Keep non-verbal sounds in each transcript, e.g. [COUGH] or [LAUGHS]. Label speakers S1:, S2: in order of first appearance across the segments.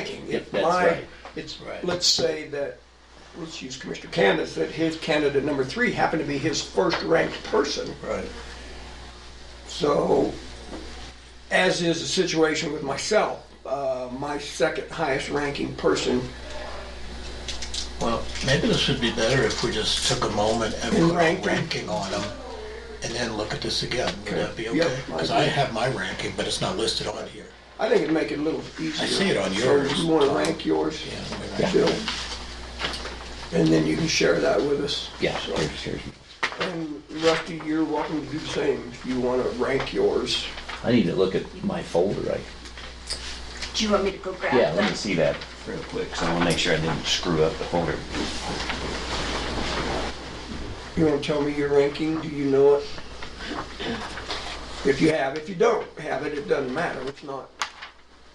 S1: picking. If
S2: That's
S1: my-
S2: right.
S1: It's,
S2: Right.
S1: let's say that, let's use Commissioner Candace, that his candidate number three happened to be his first ranked person.
S2: Right.
S1: So, as is the situation with myself, uh, my second highest ranking person
S2: Well, maybe this would be better if we just took a moment and
S1: And
S2: put
S1: rank
S2: a
S1: them.
S2: ranking on them and then look at this again. Would
S1: Okay.
S2: that be
S1: Yep,
S2: okay? Because
S1: I
S2: I
S1: agree.
S2: have my ranking, but it's not listed on here.
S1: I think it'd make it a little easier.
S2: I see it on
S1: So
S2: yours.
S1: you wanna rank yours?
S2: Yeah, we rank
S1: Bill? And then you can share that with us.
S3: Yeah,
S1: So-
S3: here's, here's,
S1: And Rusty, you're welcome to do the same if you wanna rank yours.
S3: I need to look at my folder, I,
S4: Do you want me to go grab
S3: yeah, let me
S4: that?
S3: see that real quick, so I wanna make sure I didn't screw up the folder.
S1: You wanna tell me your ranking? Do you know it? If you have, if you don't have it, it doesn't matter. It's not,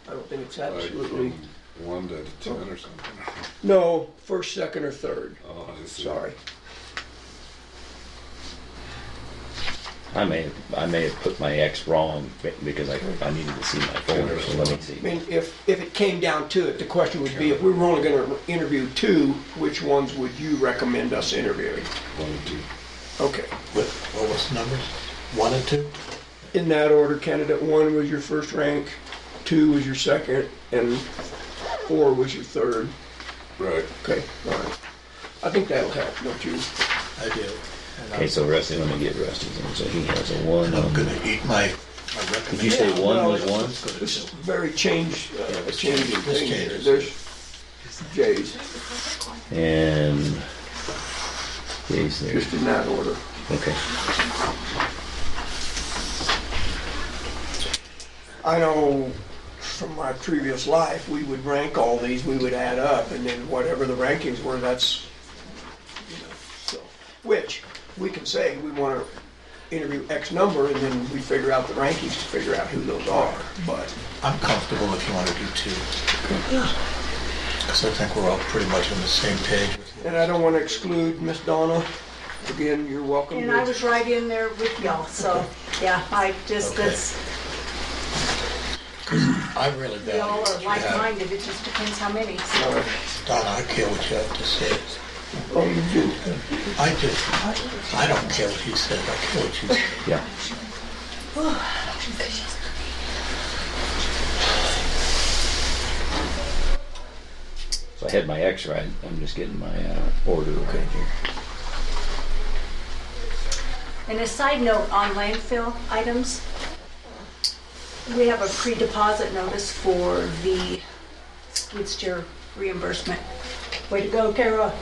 S1: I don't think it's
S5: Like
S1: absolutely,
S5: from One to ten or something. [LAUGHS]
S1: no, first, second, or third.
S5: Oh, I see.
S1: Sorry.
S3: I may, have- I may have put my X wrong, be- because I, I needed to see my folder, so let me
S1: I
S3: see.
S1: mean, if, if it came down to it, the question would be, if we were only gonna interview two, which ones would you recommend us interviewing?
S5: One and two.
S1: Okay,
S2: What, what was the numbers? One and two?
S1: in that order, candidate one was your first rank, two was your second, and four was your third.
S5: Right.
S1: Okay, all right. I think that'll help, don't you?
S2: I do. And
S3: Okay,
S2: I'm-
S3: so Rusty, let me get Rusty's in, so he has a one,
S2: And I'm
S3: um,
S2: gonna eat my, my
S3: did you say
S2: recommendation.
S3: one
S1: well,
S3: was one?
S2: Let's go to
S1: This is
S2: two.
S1: very change, uh,
S2: this
S1: changing
S2: changes, this
S1: thing here.
S2: changes.
S1: There's J's,
S3: And, Jay's there,
S1: just in that order.
S3: okay.
S1: I know from my previous life, we would rank all these, we would add up, and then whatever the rankings were, that's, you know, so, which, we can say, we want to interview X number, and then we figure out the rankings to figure out who those are, but,
S2: I'm comfortable if you want to do two. Because I think we're all pretty much on the same page with
S1: and I don't want to exclude Miss Donna. Again, you're welcome
S4: And I
S1: to,
S4: was right in there with y'all, so, yeah, I just,
S2: Okay.
S4: that's,
S2: I really
S4: we
S2: value
S4: all
S2: what
S4: are
S2: you have.
S4: like-minded, it just depends how many, so.
S1: uh,
S2: Donna, I care what you have to say.
S1: oh, you do,
S2: I just, I don't care what you said, I care what you said.
S3: Yeah. So I had my X right. I'm just getting my uh, order right here.
S4: And a side note on landfill items, we have a pre-deposit notice for the Woodster reimbursement. Way to go, Tara.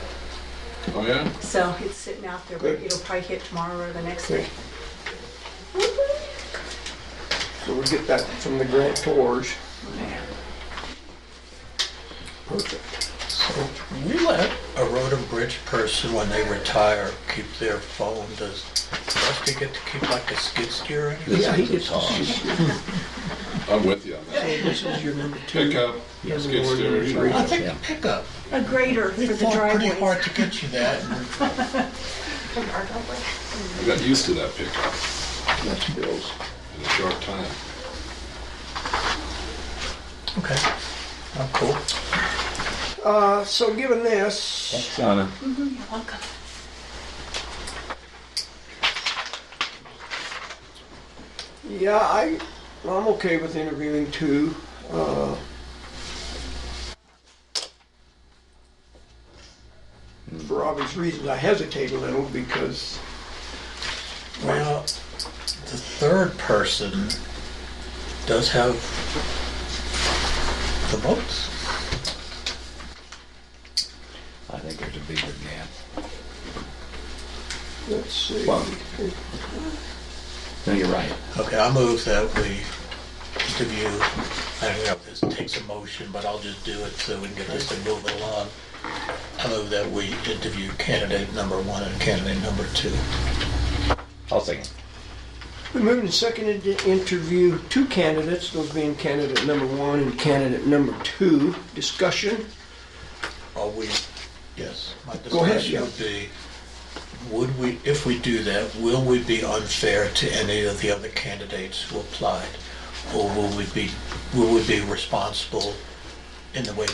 S5: Oh, yeah?
S4: So it's sitting out there, but
S1: Good.
S4: it'll probably hit tomorrow or the next
S1: Okay.
S4: day.
S1: so we'll get that from the grantors. Perfect.
S2: So, we let a road and bridge person, when they retire, keep their phone, does Rusty get to keep like a skid steer or anything?
S1: Yeah, he gets,
S5: I'm with you on that.
S1: this is your number two.
S5: Pick up,
S1: Number
S5: skid
S1: one,
S5: steer,
S1: number
S5: you
S1: three.
S5: know.
S2: I think a pickup,
S4: A grader
S2: they
S4: for the
S2: fought pretty
S4: driveway.
S2: hard to get you that, and
S5: I got used to that pickup
S1: That's Bill's.
S5: in a short time.
S2: Okay, I'm cool.
S1: Uh, so given this,
S3: Thanks, Donna.
S4: You're welcome.
S1: yeah, I, I'm okay with interviewing two. Uh, for obvious reasons, I hesitate a little because
S2: Well, the third person does have the votes.
S3: I think there's a bigger gap.
S1: let's see.
S3: Well- No, you're right.
S2: Okay, I move that we interview, I don't know if this takes a motion, but I'll just do it so we can get this thing moving along. I move that we interview candidate number one and candidate number two.
S3: I'll second.
S1: We moved and seconded to interview two candidates, those being candidate number one and candidate number two. Discussion.
S2: Are we, yes, my
S1: Go ahead, yeah.
S2: discussion would be, would we, if we do that, will we be unfair to any of the other candidates who applied? Or will we be, will we be responsible in the way